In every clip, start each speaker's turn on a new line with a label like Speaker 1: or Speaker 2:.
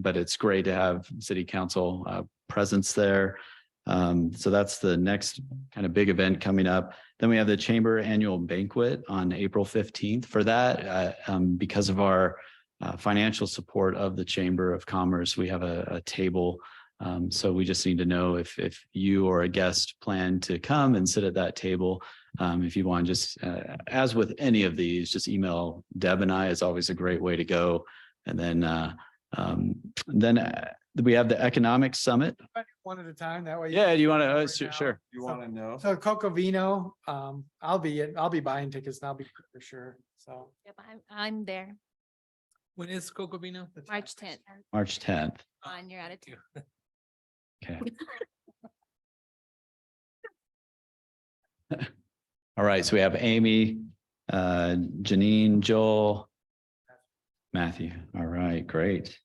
Speaker 1: but it's great to have city council uh, presence there. Um, So that's the next kind of big event coming up. Then we have the Chamber Annual Banquet on April 15th. For that, uh, um, because of our uh, financial support of the Chamber of Commerce, we have a a table um, so we just need to know if, if you or a guest plan to come and sit at that table. Um, if you want, just, uh, as with any of these, just email Deb and I is always a great way to go. And then, uh, um, then uh, we have the economic summit.
Speaker 2: One at a time, that way. you
Speaker 1: Yeah,
Speaker 2: can
Speaker 1: do you want to,
Speaker 2: do it
Speaker 1: uh,
Speaker 2: right
Speaker 1: su-
Speaker 2: now.
Speaker 1: sure.
Speaker 3: You want to know?
Speaker 2: So Coco Vino, um, I'll be, in- I'll be buying tickets and I'll be for sure, so.
Speaker 4: Yep, I'm, I'm there,
Speaker 5: When is Coco Vino?
Speaker 4: March tenth,
Speaker 1: March tenth.
Speaker 4: on your attitude.
Speaker 1: Okay. All right, so we have Amy, uh, Janine, Joel, Matthew. All right, great.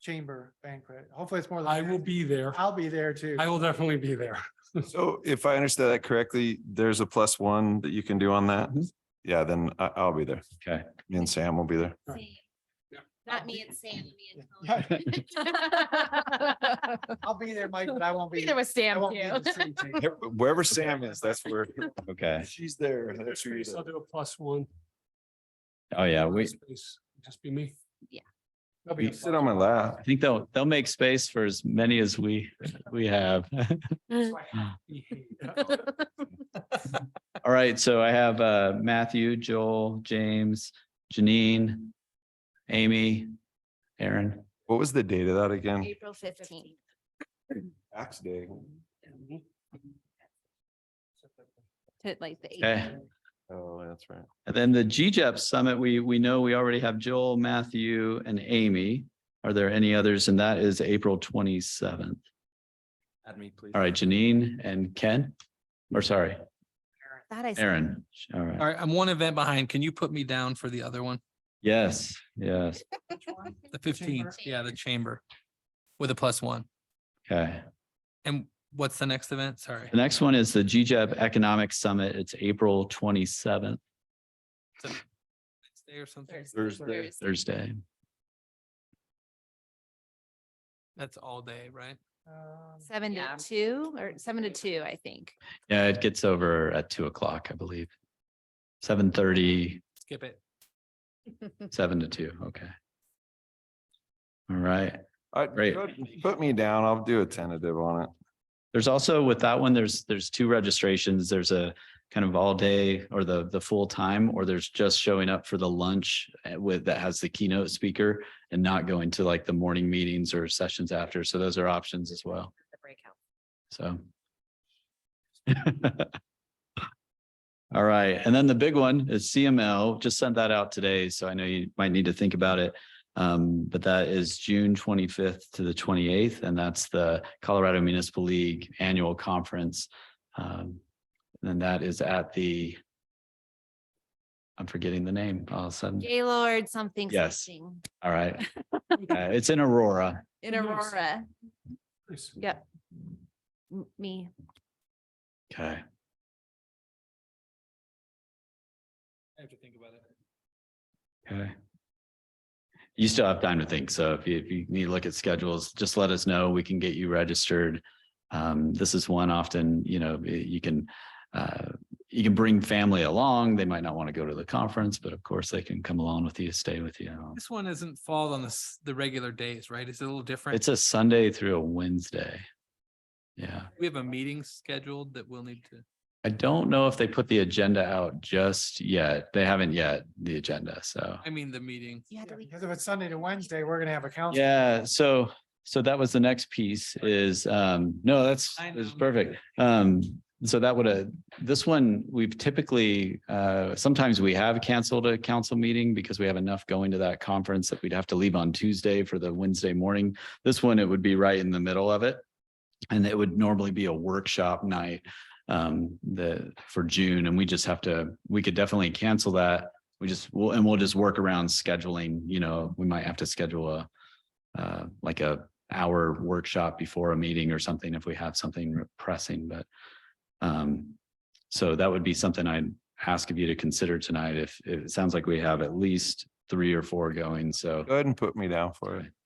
Speaker 2: Chamber banquet. Hopefully it's more. than
Speaker 5: I will
Speaker 2: 10.
Speaker 5: be there.
Speaker 2: I'll be there too.
Speaker 5: I will definitely be there.
Speaker 3: So if I understand that correctly, there's a plus one that you can do on that?
Speaker 1: Mhm.
Speaker 3: Yeah, then I, I'll be there.
Speaker 1: Okay.
Speaker 3: Me and Sam will be there.
Speaker 5: Yeah.
Speaker 4: Not me and Sam, me
Speaker 2: Yeah,
Speaker 4: and Tony.
Speaker 2: I'll be there, Mike, but I won't be.
Speaker 4: Either with
Speaker 2: I
Speaker 4: Sam
Speaker 2: won't be at
Speaker 4: too.
Speaker 2: the city table.
Speaker 3: Wherever Sam is, that's where,
Speaker 1: Okay.
Speaker 3: if she's there.
Speaker 5: I'll
Speaker 3: that's where you're there.
Speaker 5: do a plus one.
Speaker 1: Oh, yeah, we,
Speaker 5: Space, Just be me.
Speaker 2: I'll be
Speaker 3: You
Speaker 2: at
Speaker 3: Sit on my lap.
Speaker 1: I think they'll, they'll make space for as many as we, we have. All right, so I have uh, Matthew, Joel, James, Janine, Amy, Aaron.
Speaker 3: What was the date of that again?
Speaker 4: April fifteenth.
Speaker 3: Tax day.
Speaker 4: To like the
Speaker 1: Okay.
Speaker 4: eighteenth.
Speaker 3: Oh, that's right.
Speaker 1: And then the GJEP Summit, we, we know we already have Joel, Matthew, and Amy. Are there any others? And that is April twenty-seventh.
Speaker 3: Add me, please.
Speaker 1: All right, Janine and Ken, or sorry,
Speaker 4: That I. said.
Speaker 1: Aaron. All
Speaker 5: All
Speaker 1: right.
Speaker 5: right, I'm one event behind. Can you put me down for the other one?
Speaker 1: Yes, yes.
Speaker 5: The fifteenth, yeah, the chamber with a plus one.
Speaker 1: Okay.
Speaker 5: And what's the next event? Sorry.
Speaker 1: The next one is the GJEP Economic Summit. It's April twenty-seventh,
Speaker 5: Wednesday or something?
Speaker 3: Thursday.
Speaker 4: Thursday.
Speaker 1: Thursday.
Speaker 5: That's all day, right?
Speaker 2: Um,
Speaker 4: Seven to
Speaker 6: Yeah.
Speaker 4: two or seven to two, I think.
Speaker 1: Yeah, it gets over at two o'clock, I believe. Seven thirty,
Speaker 5: Skip it.
Speaker 1: seven to two. Okay. All right.
Speaker 3: I,
Speaker 1: Great.
Speaker 3: put- put me down. I'll do a tentative on it.
Speaker 1: There's also with that one, there's, there's two registrations. There's a kind of all day or the, the full time, or there's just showing up for the lunch uh, with, that has the keynote speaker and not going to like the morning meetings or sessions after. So those are options as well.
Speaker 6: The breakout.
Speaker 1: So. All right. And then the big one is CML. Just sent that out today. So I know you might need to think about it. Um, but that is June twenty-fifth to the twenty-eighth, and that's the Colorado Municipal League Annual Conference. Um, and that is at the I'm forgetting the name. All of a sudden.
Speaker 4: Gaylord something.
Speaker 1: Yes.
Speaker 4: something.
Speaker 1: All right. Uh, It's in Aurora.
Speaker 4: In
Speaker 5: Nice.
Speaker 4: Aurora,
Speaker 5: Nice.
Speaker 4: yep. M- Me,
Speaker 1: Okay.
Speaker 5: I have to think about it.
Speaker 1: Okay. You still have time to think. So if you, if you need to look at schedules, just let us know. We can get you registered. Um, this is one often, you know, y- you can, uh, you can bring family along. They might not want to go to the conference, but of course they can come along with you, stay with you.
Speaker 5: This one isn't fall on the, s- the regular days, right? It's a little different.
Speaker 1: It's a Sunday through a Wednesday. Yeah.
Speaker 5: We have a meeting scheduled that we'll need to.
Speaker 1: I don't know if they put the agenda out just yet. They haven't yet, the agenda. So.
Speaker 5: I mean, the meeting.
Speaker 4: you had
Speaker 2: yeah,
Speaker 4: to leave.
Speaker 2: Because if it's Sunday to Wednesday, we're gonna have a council.
Speaker 1: Yeah, so, so that was the next piece is, um, no, that's,
Speaker 5: I
Speaker 1: that's
Speaker 5: know.
Speaker 1: perfect. Um, so that would, uh, this one, we've typically, uh, sometimes we have canceled a council meeting because we have enough going to that conference that we'd have to leave on Tuesday for the Wednesday morning. This one, it would be right in the middle of it. And it would normally be a workshop night, um, the, for June, and we just have to, we could definitely cancel that. We just, we'll, and we'll just work around scheduling, you know, we might have to schedule a uh, like a hour workshop before a meeting or something if we have something pressing, but um, so that would be something I'd ask of you to consider tonight. If, if it sounds like we have at least three or four going, so
Speaker 3: Go ahead and put me down for it.